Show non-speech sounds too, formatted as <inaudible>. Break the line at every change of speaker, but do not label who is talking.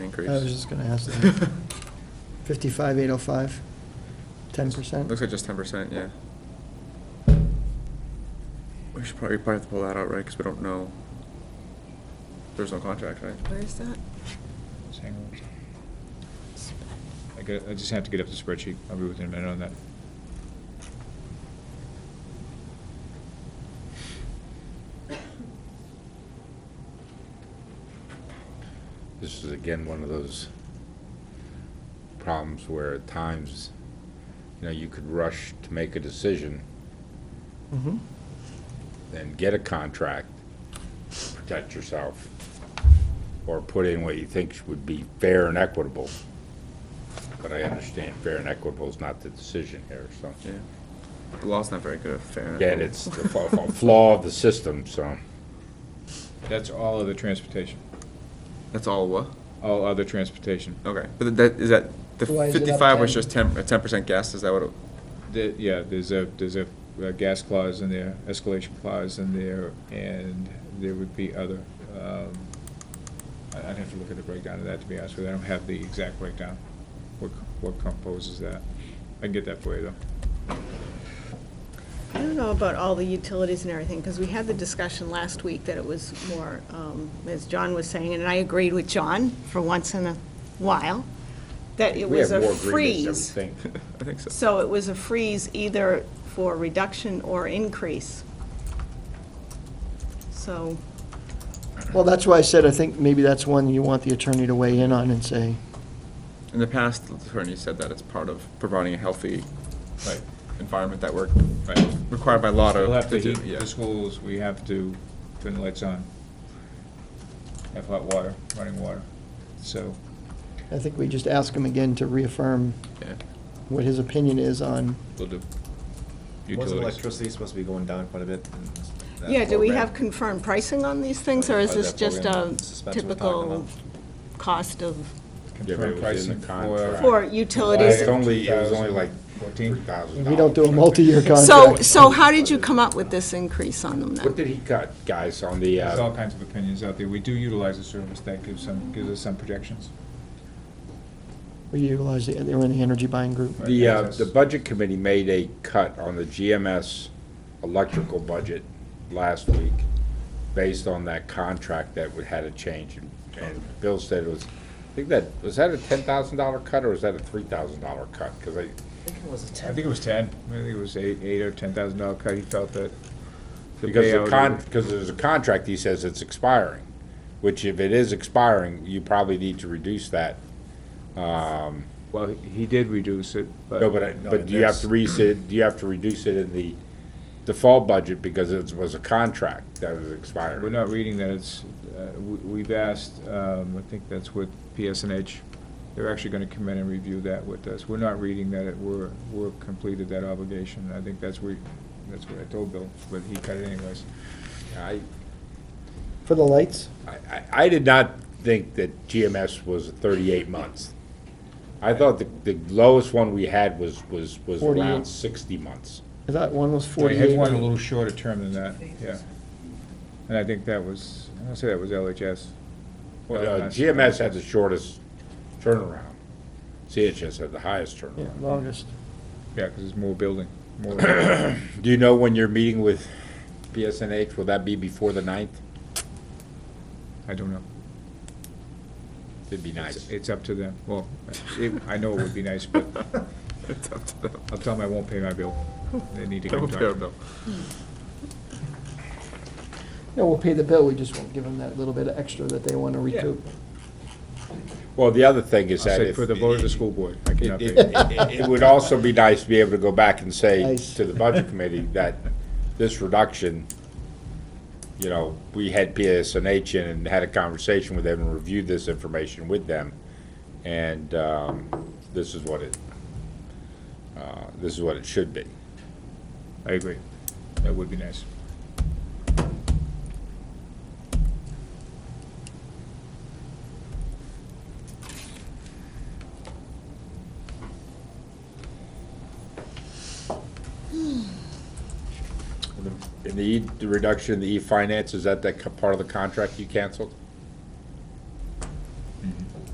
increase.
I was just gonna ask
<laughs>
that. Fifty-five, eight oh five, ten percent?
Looks like just ten percent, yeah. We should probably, probably have to pull that out, right, because we don't know. There's no contract, right?
Where's that?
Just hang on. I got, I just have to get up the spreadsheet. I'll be with you in a minute on that.
This is again one of those problems where at times, you know, you could rush to make a decision
Mm-hmm.
and get a contract, protect yourself, or put in what you think would be fair and equitable. But I understand fair and equitable is not the decision here, so.
Yeah. The law's not very good at fair. and
Again,
equitable.
it's the fa- fa- flaw of the system, so.
That's all other transportation,
That's all what?
all other transportation.
Okay, but that, is that, the
Why is it up
fifty-five was
10?
just ten, a ten percent guess, is that what? it- <laughs>
The- Yeah, there's a, there's a uh, gas clause in there, escalation clause in there, and there would be other. um, I- I'd have to look at the breakdown of that, to be honest with you. I don't have the exact breakdown, what what composes that. I can get that for you, though.
I don't know about all the utilities and everything, because we had the discussion last week that it was more, um, as John was saying, and I agreed with John for once in a while, that it
we
was
have
a
more agreements than we
freeze.
think.
I think so.
So it was a freeze either for reduction or increase. So,
Well, that's why I said, I think maybe that's one you want the attorney to weigh in on and say,
In the past, the attorney said that it's part of providing a healthy
Right,
environment that we're
right.
required by law to.
We'll have to
do,
heat
yeah.
the schools, we have to turn the lights on, have hot water, running water. So,
I think we just ask him again to reaffirm
Yeah.
what his opinion is on,
we'll do
Wasn't
utilities.
electricity supposed to be going down quite a bit? in that
yeah, do we
program?
have confirmed pricing on these things, or is
Or
this
that
just a
program Spencer was
typical
talking
cost of,
Yeah, but it
Confirm
was
pricing
in the
for.
contract.
for utilities?
It's only, it was only like
Fourteen?
three thousand dollars.
we don't do a multi-year contract.
So, so how did you come up with this increase on them then?
What did he cut, guys, on the,
There's all
uh,
kinds of opinions out there. We do utilize the service, that gives some, gives us some projections.
We utilize, the- they were in the energy buying group.
the, uh, the budget committee made a cut on the GMS electrical budget last week based on that contract that we had a change. And- And Bill said it was, I think that, was that a ten thousand dollar cut or was that a three thousand dollar cut? Because I,
I think it was ten, I think it was eight, eight or ten thousand dollar cut, he felt that. the
because
payout-
the con, because there's a contract, he says it's expiring, which if it is expiring, you probably need to reduce that. Um,
Well, he did reduce it, but.
No, but, I- but do you have to reduce it, do you have to reduce it in the default budget because it was a contract that was
We're
expiring?
not reading that, it's, uh, we- we've asked, um, I think that's with PSNH, they're actually gonna come in and review that with us. We're not reading that, it, we're, we're completed that obligation, I think that's we, that's what I told Bill, but he cut it anyways.
I,
For the lights?
I- I, I did not think that GMS was thirty-eight months. I thought the, the lowest one we had was, was, was
48.
around sixty months.
I thought one was
We had
forty-eight.
one a little shorter term than that, yeah. And I think that was, I wanna say that was LHS.
Uh, GMS had the shortest turnaround. CHS had the highest
Yeah,
turnaround.
longest.
Yeah, 'cause it's more building, more,
Do you know when you're meeting with PSNH? Will that be before the ninth?
I don't know.
It'd be nice.
It's- It's up to them, well, it, I know it would be nice, but
It's up to them.
I'll tell them I won't pay my bill. They need to
They
come
won't
talk
pay
to
our
me.
bill.
No, we'll pay the bill, we just won't give them that little bit of extra that they want to
Yeah.
recoup.
Well, the other thing
I'll
is that
say
if.
for the vote of the school board, I cannot
It,
pay.
it- <laughs> it- it would also be nice to be able to go back and say
Nice.
to the budget committee that this reduction, you know, we had PSNH in and had a conversation with them and reviewed this information with them. And, um, this is what it, uh, this is what it should be.
I agree. That would be nice.
E And the, E- the reduction in the E-finance, is that that co- part of the contract you canceled?